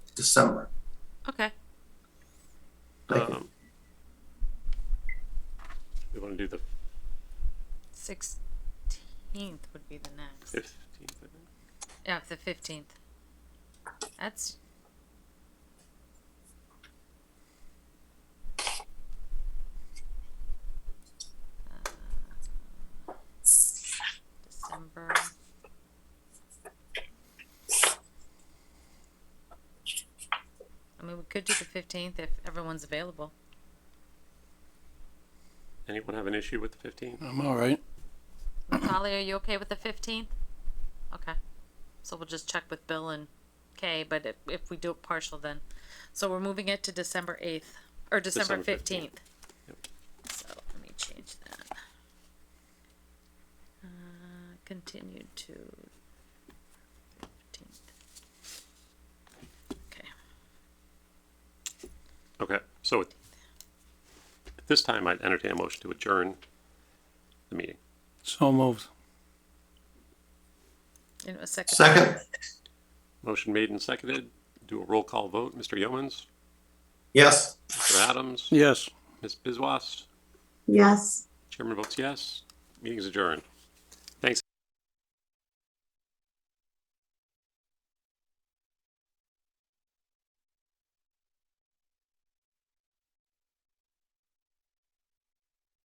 December. Okay. Like, Um, we want to do the Sixteenth would be the next. fifteenth. I think. Yeah, the fifteenth. That's Uh, December. I mean, we could do the fifteenth if everyone's available. Anyone have an issue with the fifteenth? I'm all right. Natalia, are you okay with the fifteenth? Okay, so we'll just check with Bill and Kay, but if, if we do it partial then, so we're moving it to December eighth, or December December 15th. fifteenth. Yep. So let me change that. Uh, continue to fifteenth. Okay, Okay, so at at this time, I'd entertain a motion to adjourn the meeting. So moved. in a second. second, Motion made and seconded. Do a roll call vote. Mr. Yeomans, yes. Mr. Adams, Yes. Ms. Bizwas, Yes. chairman votes yes. Meeting's adjourned.